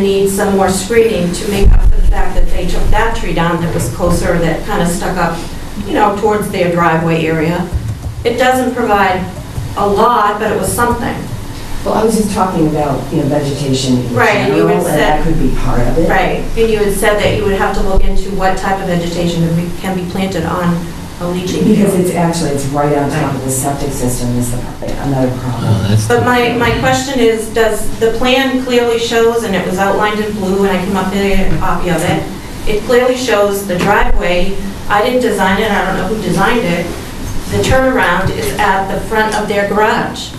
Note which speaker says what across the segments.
Speaker 1: need some more screening to make up for the fact that they took that tree down that was closer, that kind of stuck up, you know, towards their driveway area. It doesn't provide a lot, but it was something,
Speaker 2: Well, I was just talking about, you know, vegetation in
Speaker 1: Right, and you
Speaker 2: general,
Speaker 1: had
Speaker 2: and that
Speaker 1: said-
Speaker 2: could be part of it.
Speaker 1: right? And you had said that you would have to look into what type of vegetation can be- can be planted on a leaching
Speaker 2: Because
Speaker 1: field.
Speaker 2: it's actually, it's right on top of the septic system is the pro- another
Speaker 3: Oh,
Speaker 2: problem.
Speaker 1: But my, my question is, does, the plan clearly shows, and it was outlined in blue, and I came up with a copy of it, it clearly shows the driveway, I didn't design it, I don't know who designed it, the turnaround is at the front of their garage.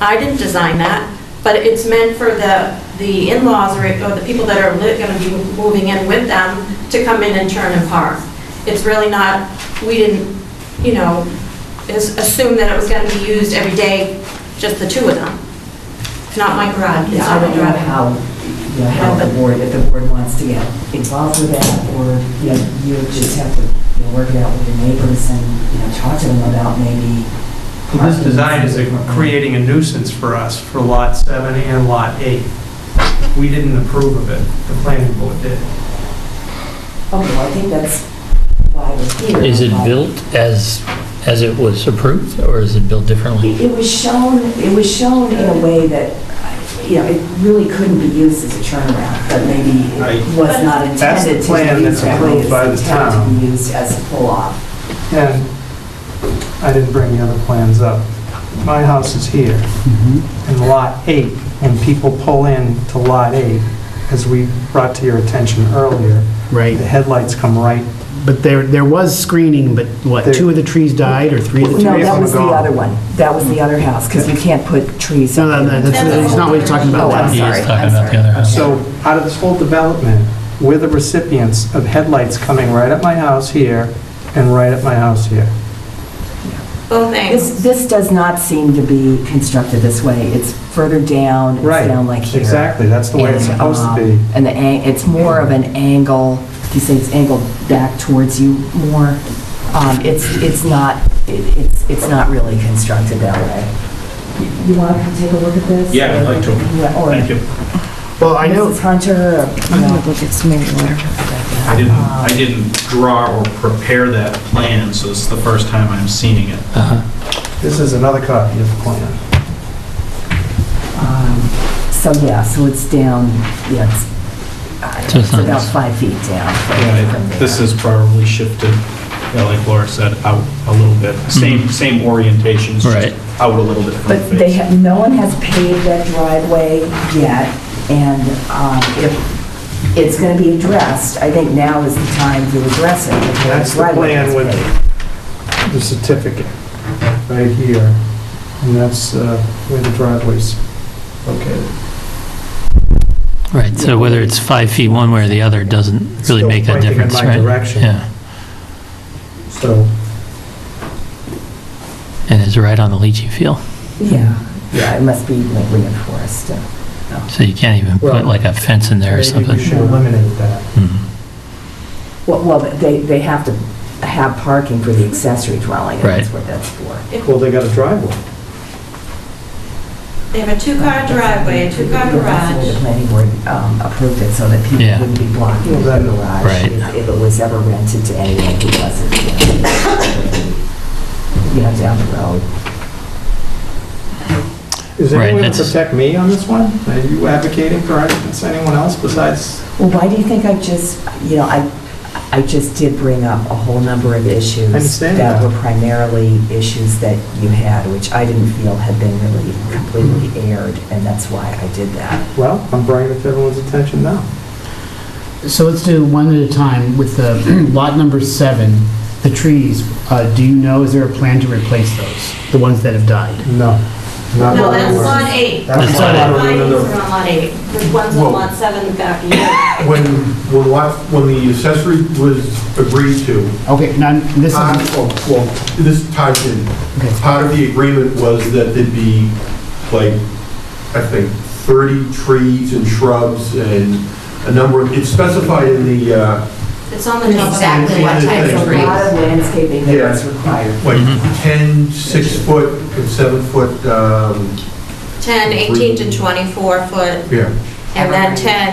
Speaker 1: I didn't design that, but it's meant for the, the in-laws or or the people that are going to be moving in with them to come in and turn and park. It's really not, we didn't, you know, is- assume that it was going to be used every day, just the two of them. It's not my garage, it's
Speaker 2: Yeah, I
Speaker 1: not my
Speaker 2: don't know
Speaker 1: driveway.
Speaker 2: how, you know, how the board, if the board wants to get involved with that, or, you know, you just have to, you know, work it out with your neighbors and, you know, talk to them about maybe.
Speaker 4: Well, This design is a-
Speaker 2: markings.
Speaker 4: creating a nuisance for us for Lot 7 and Lot 8. We didn't approve of it, the planning board did.
Speaker 2: Okay, well, I think that's why we're here.
Speaker 3: Is it
Speaker 2: but-
Speaker 3: built as, as it was approved, or is it built differently?
Speaker 2: It it was shown, it was shown in a way that, you know, it really couldn't be used as a turnaround, but maybe
Speaker 4: Right.
Speaker 2: it was not
Speaker 4: That's the
Speaker 2: intended to
Speaker 4: plan
Speaker 2: be
Speaker 4: that's
Speaker 2: used that way.
Speaker 4: approved by the
Speaker 2: It's intended to
Speaker 4: town.
Speaker 2: be used as a pull-off.
Speaker 4: And I didn't bring the other plans up. My house is here, in Lot 8, when people pull in to Lot 8, as we brought to your attention earlier, the
Speaker 5: Right,
Speaker 4: headlights come right,
Speaker 5: but there, there was screening, but what,
Speaker 4: There-
Speaker 5: two of the trees died or three of the
Speaker 4: Well,
Speaker 5: trees?
Speaker 4: no,
Speaker 2: No,
Speaker 4: trees that
Speaker 2: that
Speaker 4: were
Speaker 2: was
Speaker 4: was the
Speaker 2: the
Speaker 4: gone.
Speaker 2: other
Speaker 4: other
Speaker 2: one. That was the other house, because you can't put trees.
Speaker 5: No, no, no, that's,
Speaker 1: That's
Speaker 5: that's not what he's talking about.
Speaker 2: Oh, I'm
Speaker 3: He is
Speaker 2: sorry,
Speaker 3: talking
Speaker 2: I'm
Speaker 3: about the
Speaker 2: sorry.
Speaker 3: other house.
Speaker 4: So out of this whole development, we're the recipients of headlights coming right at my house here and right at my house here.
Speaker 1: Both things.
Speaker 2: This, this does not seem to be constructed this way. It's further down, it's
Speaker 4: Right,
Speaker 2: down like here.
Speaker 4: Exactly, that's the way it's
Speaker 2: And,
Speaker 4: supposed to
Speaker 2: um,
Speaker 4: be.
Speaker 2: And the, an- it's more of an angle, if you say it's angled back towards you more, um, it's, it's not, it- it's, it's not really constructed that way. You want to take a look at this?
Speaker 6: Yeah, I'd like to.
Speaker 2: Yeah, Or
Speaker 6: Oh, Thank you.
Speaker 5: Well, I know,
Speaker 2: Mrs. Hunter, or, you know.
Speaker 7: look at some of your letter.
Speaker 6: I didn't, I didn't draw or prepare that plan, so this is the first time I'm seeing it.
Speaker 4: Uh-huh. This is another copy of the plan.
Speaker 2: Um, So, yeah, so it's down, yeah, it's, uh,
Speaker 3: So it's
Speaker 2: it's
Speaker 3: not
Speaker 2: about
Speaker 3: this.
Speaker 2: five feet down. from there.
Speaker 6: This is probably shifted, you know, like Laura said, out a little bit. Same, same orientation, it's
Speaker 3: Right.
Speaker 6: just out a little bit from
Speaker 2: But
Speaker 6: the
Speaker 2: they
Speaker 6: face.
Speaker 2: have, no one has paved that driveway yet, and um, if it's going to be addressed, I think now is the time to address it. if
Speaker 4: That's the
Speaker 2: driveway
Speaker 4: plan
Speaker 2: is
Speaker 4: with-
Speaker 2: paved.
Speaker 4: The certificate, right here, and that's uh, where the driveway's located.
Speaker 3: Right, so whether it's five feet one way or the other doesn't really
Speaker 4: Still
Speaker 3: make that
Speaker 4: pointing in
Speaker 3: difference,
Speaker 4: my
Speaker 3: right?
Speaker 4: direction.
Speaker 3: Yeah,
Speaker 4: So,
Speaker 3: and it's right on the leachy field,
Speaker 2: Yeah, yeah, it must be like reinforced. uh,
Speaker 3: so you can't even
Speaker 4: Well,
Speaker 3: put like a fence in there or
Speaker 4: maybe we
Speaker 3: something.
Speaker 4: should eliminate that.
Speaker 3: Mhm.
Speaker 2: Well, well, they, they have to have parking for the accessory dwelling, and that's
Speaker 3: Right.
Speaker 2: what that's for.
Speaker 4: Well, they got a driveway.
Speaker 1: They have a two-car driveway, a two-car
Speaker 2: That's the way The
Speaker 1: garage.
Speaker 2: planning board um, approved it, so that people
Speaker 3: Yeah.
Speaker 2: wouldn't be blocking the
Speaker 4: Well, that-
Speaker 2: garage.
Speaker 3: Right.
Speaker 2: If if it was ever rented to anyone who wasn't, you know, you know, down the road.
Speaker 4: Is
Speaker 3: Right,
Speaker 4: anyone going to
Speaker 3: that's-
Speaker 4: protect me on this one? Are you advocating for arguments, anyone else besides?
Speaker 2: Well, why do you think I just, you know, I, I just did bring up a whole number of issues.
Speaker 4: I understand
Speaker 2: That
Speaker 4: that.
Speaker 2: were primarily issues that you had, which I didn't feel had been really completely aired, and that's why I did that.
Speaker 4: Well, I'm bringing it to everyone's attention now.
Speaker 5: so let's do one at a time with the lot number seven, the trees. Uh, do you know, is there a plan to replace those, the ones that have died?
Speaker 4: No. not
Speaker 1: No,
Speaker 4: what I
Speaker 1: that's
Speaker 4: was-
Speaker 1: lot eight.
Speaker 4: That's
Speaker 3: That's lot
Speaker 4: not what
Speaker 1: My
Speaker 4: I
Speaker 1: names
Speaker 4: was-
Speaker 1: are on lot eight, which one's
Speaker 8: Whoa.
Speaker 1: on lot seven back here.
Speaker 8: When, when what, when the accessory was agreed to,
Speaker 5: Okay, now, this
Speaker 8: part
Speaker 4: Uh,
Speaker 5: is,
Speaker 8: of, well, this ties in,
Speaker 5: Okay.
Speaker 8: part of the agreement was that there'd be, like, I think, 30 trees and shrubs and a number, of it's specified in the, uh,
Speaker 1: It's on the top of that.
Speaker 8: Exactly what type of
Speaker 2: There's a lot of landscaping that
Speaker 8: Yeah.
Speaker 2: was required.
Speaker 8: like,
Speaker 3: Mhm.
Speaker 8: 10, 6-foot and 7-foot, um,
Speaker 1: 10, 18 to 24 foot
Speaker 8: yeah,
Speaker 1: And then
Speaker 8: Evergreen.
Speaker 1: 10